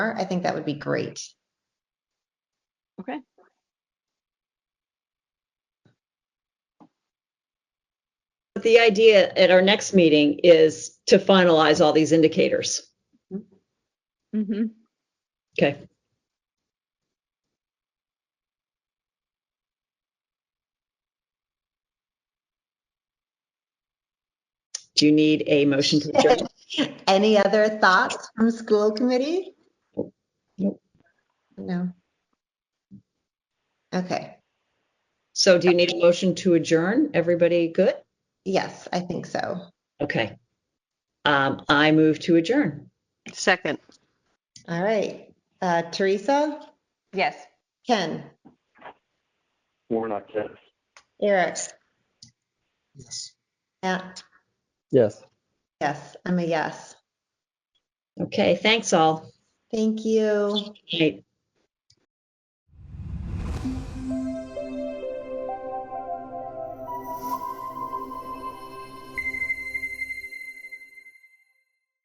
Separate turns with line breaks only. I think that would be great.
Okay.
But the idea at our next meeting is to finalize all these indicators.
Mm-hmm.
Okay. Do you need a motion to adjourn?
Any other thoughts from school committee?
Nope.
No. Okay,
So do you need a motion to adjourn? Everybody good?
yes, I think so.
Okay. Um, I move to adjourn.
Second.
All right, Uh, Teresa,
Yes.
Ken,
Warnock, yes.
Eric,
Yes.
Matt,
Yes.
yes, I'm a yes.
Okay, thanks all.
Thank you.
Right.